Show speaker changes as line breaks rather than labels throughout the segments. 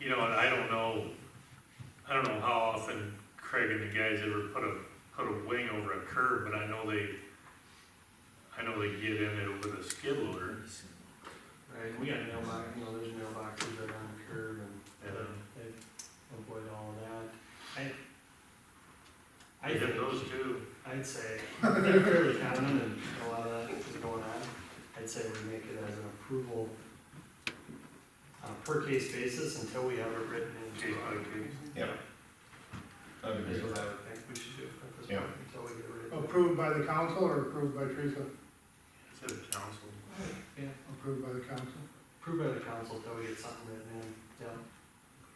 you know, and I don't know, I don't know how often Craig and the guys ever put a, put a wing over a curb, but I know they, I know they get in it with a skid loader.
Right, we got mailbox, you know, there's mailboxes right on the curb and they avoid all of that. I, I
They have
think,
those too.
I'd say, they're fairly common and a lot of that is going on. I'd say we make it as an approval on a per case basis until we have it written
Case
into
by
our.
case.
Yeah. That'd be
Is
great.
what I would think we should do at this
Yeah.
point, until we get it written.
Approved by the council or approved by Teresa?
It's a council.
Yeah,
Approved by the council.
approved by the council until we get something written in, yeah,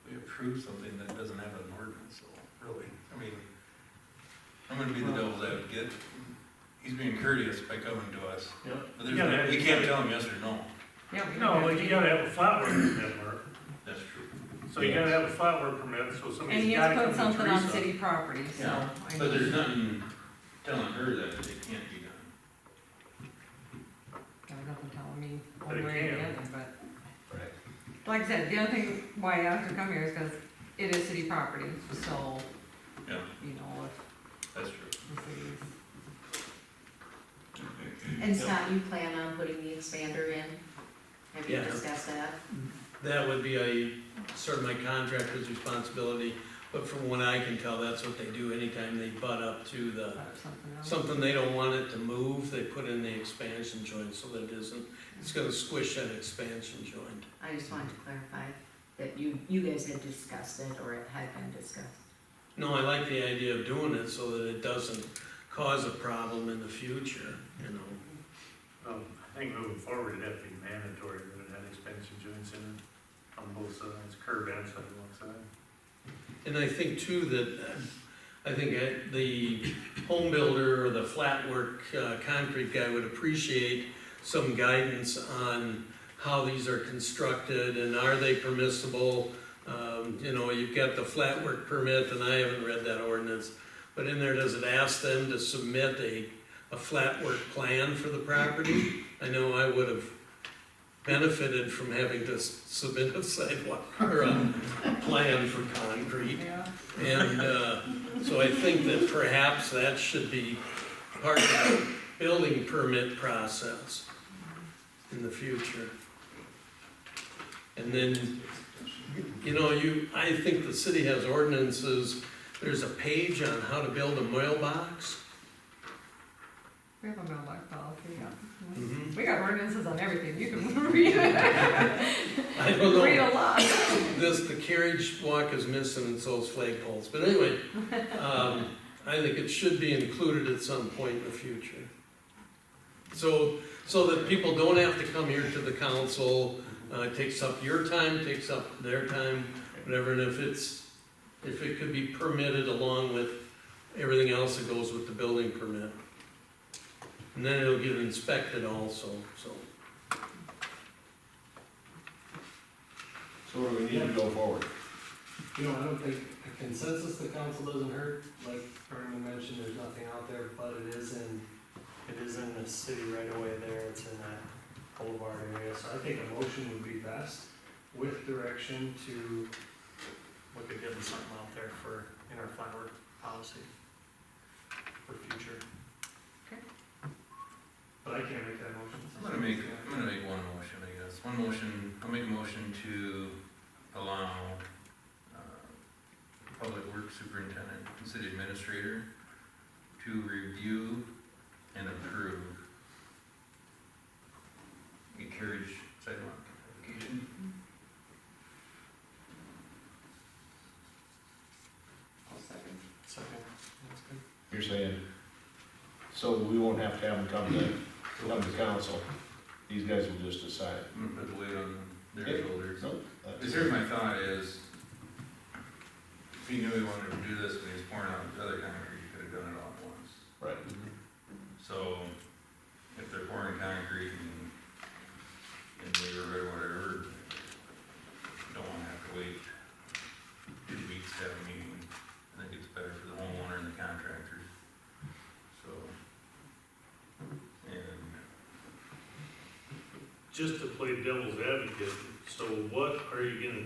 We approve something that doesn't have an ordinance, so, really, I mean, I'm gonna be the devil's advocate. He's being courteous by coming to us,
yeah.
but there's,
Yeah,
no-
that-
we can't tell him yes or no.
No, like you gotta have a flat work permit, Mark.
That's true.
So you gotta have a flat work permit, so
And
somebody's
he
gotta
has
come
put
to
something on
Teresa.
city property, so.
Yeah,
I
But there's
mean,
nothing telling her that it can't be done.
Got nothing telling me
But it
one way or the
can.
other, but, like I said, the other thing why I have to come here is because it is city property, so,
Yeah,
you know, if
that's true.
the city's.
And Scott, you plan on putting the expander in? Have you
Yeah.
discussed that?
That would be a, certainly contractor's responsibility, but from what I can tell, that's what they do anytime they butt up to the,
Or something else.
something they don't want it to move, they put in the expansion joint so that it isn't, it's gonna squish that expansion joint.
I just wanted to clarify that you, you guys had discussed it or it had been discussed.
No, I like the idea of doing it so that it doesn't cause a problem in the future, you know?
Um, I think moving forward, it'd have to be mandatory that it had expansion joints in it on both sides, curb and sidewalk side.
And I think too that, uh, I think uh, the home builder or the flat work, uh, concrete guy would appreciate some guidance on how these are constructed and are they permissible? Um, you know, you've got the flat work permit and I haven't read that ordinance, but in there, does it ask them to submit a, a flat work plan for the property? I know I would have benefited from having to s- submit a sidewalk or a plan for concrete.
Yeah,
And uh, so I think that perhaps that should be part of the building permit process in the future. And then, you know, you, I think the city has ordinances, there's a page on how to build a mailbox.
we have a mailbox policy,
Mm-hmm.
yeah.
Mhm.
We got ordinances on everything, you can read it,
I don't know.
read a lot.
this, the carriage walk is missing and so is flagpoles, but anyway, um, I think it should be included at some point in the future. So, so that people don't have to come here to the council, uh, it takes up your time, takes up their time, whatever, and if it's, if it could be permitted along with everything else that goes with the building permit. And then it'll get inspected also, so.
So what do we need to go forward?
You know, I don't think a consensus the council doesn't hurt, like Vernon mentioned, there's nothing out there, but it is in, it is in the city right away there, it's in that boulevard area, so I think a motion would be best with direction to look at getting something out there for, in our flower policy for future.
Okay.
But I can't make that motion.
I'm gonna make, I'm gonna make one motion, I guess. One motion, I'll make a motion to allow, uh, public works superintendent and city administrator to review and approve a carriage sidewalk application.
Second, that's good.
You're saying, so we won't have to have them come to, come to council. These guys will just decide.
I'm gonna put the weight on their
Okay.
shoulders.
Nope. that's-
Because here's my thought is, if he knew he wanted to do this when he was pouring out the other concrete, he could have done it all at once.
Right.
So, if they're pouring concrete and, and neighborhood, whatever, don't wanna have to wait two weeks to have a meeting. I think it's better for the homeowner and the contractor, so. And,
Just to play devil's advocate, so what are you gonna